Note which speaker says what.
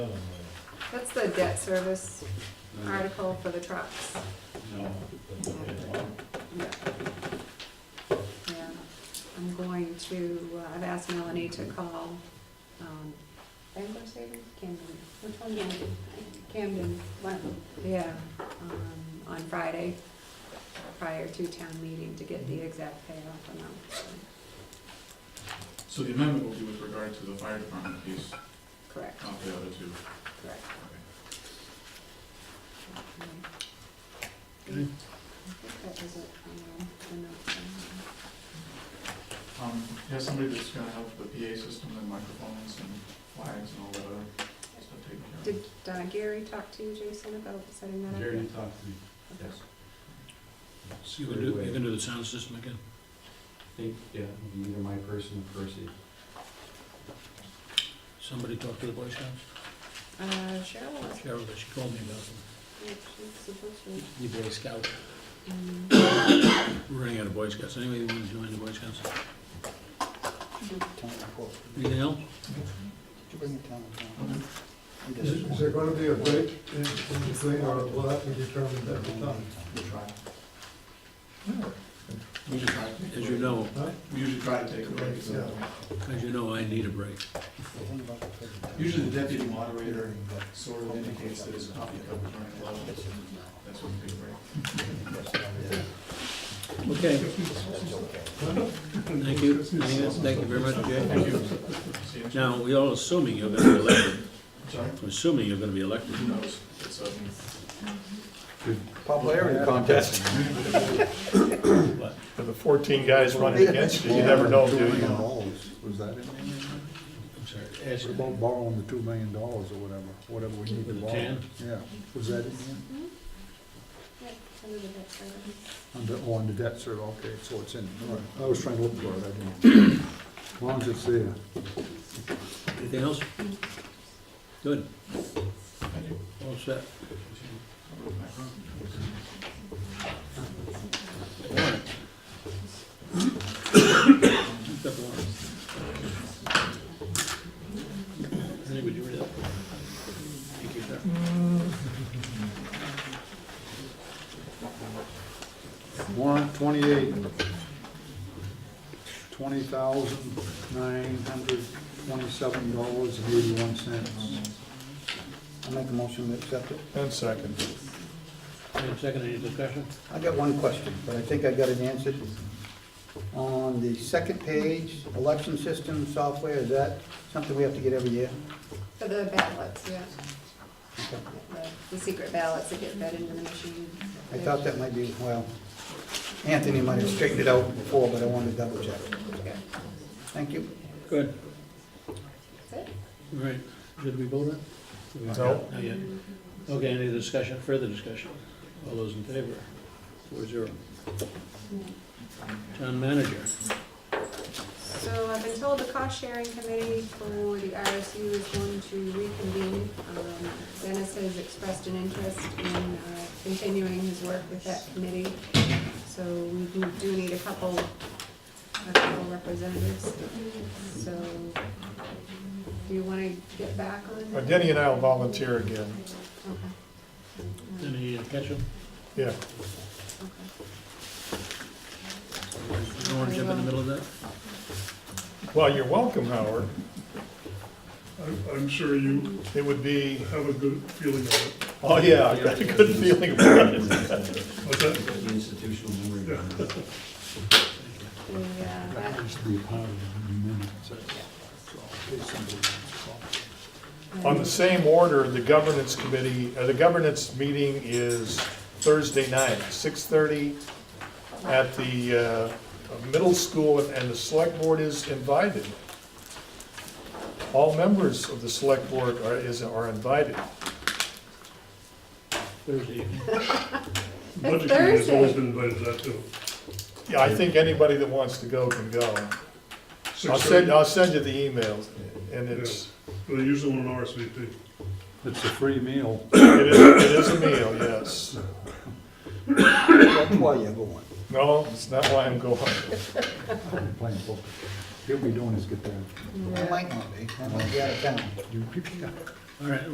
Speaker 1: That's the debt service article for the trucks.
Speaker 2: No.
Speaker 1: Yeah, Yeah. I'm going to, uh, I've asked Melanie to call, um, Bangor Savings, Camden, which one do I do? Camden, Lutton, yeah, um, on Friday, prior to town meeting, to get the exact payoff amount. so,
Speaker 2: So the amendment will be with regard to the fire department piece,
Speaker 1: Correct,
Speaker 3: Oh.
Speaker 2: not the other two.
Speaker 1: correct.
Speaker 2: Okay.
Speaker 1: I think that was it, um, the notes I
Speaker 2: Um, you have somebody that's gonna help with the PA system and microphones and flags and all that other stuff taken
Speaker 1: had.
Speaker 2: care
Speaker 1: Did uh, Gary talk to you, Jason, about setting that up?
Speaker 4: Gary did talk to me, yes.
Speaker 5: So you're gonna do, you're gonna do the sound system again?
Speaker 4: I think, yeah, it'd be either my person or Percy.
Speaker 5: Somebody talk to the Boy Scouts?
Speaker 1: Uh, Cheryl was
Speaker 5: Cheryl, she called me about
Speaker 1: Yeah, she's supposed to.
Speaker 5: the Boy Scout.
Speaker 1: Um,
Speaker 5: We're running out of Boy Scouts. Anybody want to join the Boy Scouts? Anything else?
Speaker 6: Is is there gonna be a break in in between, or will that be determined at the time?
Speaker 2: of. We usually try to take
Speaker 5: As you
Speaker 2: a break.
Speaker 5: know,
Speaker 6: Huh?
Speaker 2: We usually try to take a break, so.
Speaker 6: Yeah.
Speaker 5: as you know, I need a break.
Speaker 2: Usually the deputy moderator sort of indicates that his coffee cup is running low. That's when we take a break.
Speaker 5: Okay. Thank you. Anything else? Thank you very much, Jay.
Speaker 2: Thank you. See you.
Speaker 5: Now, we all assuming you're gonna be elected.
Speaker 2: Sorry,
Speaker 5: I'm assuming you're gonna be elected.
Speaker 2: who knows? It's, um,
Speaker 7: Popularity contest.
Speaker 3: For the 14 guys running against you, you never know, do
Speaker 7: Two
Speaker 3: you?
Speaker 7: million dollars, was that it?
Speaker 5: I'm sorry.
Speaker 7: What about borrowing the two million dollars or whatever, whatever we need to
Speaker 5: The
Speaker 7: borrow?
Speaker 5: ten?
Speaker 7: Yeah, was that in here?
Speaker 1: yeah, under the debt service.
Speaker 7: Under, oh, under debt service, okay, so it's in, all right. I was trying to look for it, I didn't. As long as it's there.
Speaker 5: Anything else? Good. All set. Warrant. Got the warrant. Anybody read that? Thank you, sir.
Speaker 7: Warrant twenty-eight, twenty thousand nine hundred twenty-seven dollars and eighty-one cents.
Speaker 8: I make a motion to accept it.
Speaker 3: And second.
Speaker 5: Any second, any discussion?
Speaker 8: I got one question, but I think I got it answered. On the second page, election system software, is that something we have to get every year?
Speaker 1: For the ballots, yeah. The- The secret ballots that get fed into the machine.
Speaker 8: I thought that might be, well, Anthony might have straightened it out before, but I wanted to double check.
Speaker 1: Yeah.
Speaker 8: Thank you.
Speaker 5: Good.
Speaker 1: That's it.
Speaker 5: All right. Did we vote on? it?
Speaker 3: No.
Speaker 5: Not yet. Okay, any discussion, further discussion? All those in favor? Four zero. Town manager.
Speaker 1: So I've been told the cost sharing committee for the RSU is going to reconvene. Um, Dennis has expressed an interest in uh, continuing his work with that committee. So we do- do need a couple, a couple representatives. So do you want to get back on?
Speaker 3: Well,
Speaker 1: that?
Speaker 3: Denny and I will volunteer again,
Speaker 1: Okay, Um,
Speaker 5: Any catch up?
Speaker 3: yeah.
Speaker 1: okay.
Speaker 5: You don't want to jump in the middle of that?
Speaker 3: Well, you're welcome, Howard.
Speaker 9: I'm, I'm sure you
Speaker 3: It would be,
Speaker 9: have a good feeling of it.
Speaker 3: oh, yeah, I got a good feeling about it.
Speaker 9: But that,
Speaker 4: The institutional memory.
Speaker 1: The, uh,
Speaker 7: That
Speaker 1: that-
Speaker 7: has to be part of the minutes. that's all. It's somebody else's fault.
Speaker 3: On the same order, the governance committee, uh, the governance meeting is Thursday night, 6:30 at the uh, middle school, and the select board is invited. All members of the select board are, is, are invited.
Speaker 5: Thursday evening.
Speaker 9: the budget committee has always
Speaker 1: Thursday.
Speaker 9: been invited to that too.
Speaker 3: Yeah, I think anybody that wants to go can go. I'll send, I'll send you the emails, and it's,
Speaker 9: They usually want an RSVP.
Speaker 7: It's a free meal.
Speaker 3: it is, it is a meal, yes.
Speaker 8: That's why you're going.
Speaker 3: No, it's not why I'm going.
Speaker 7: I'm playing poker. He'll be doing his guitar.
Speaker 8: I might not be, I might be out of town.
Speaker 7: You pick it up.
Speaker 5: All right,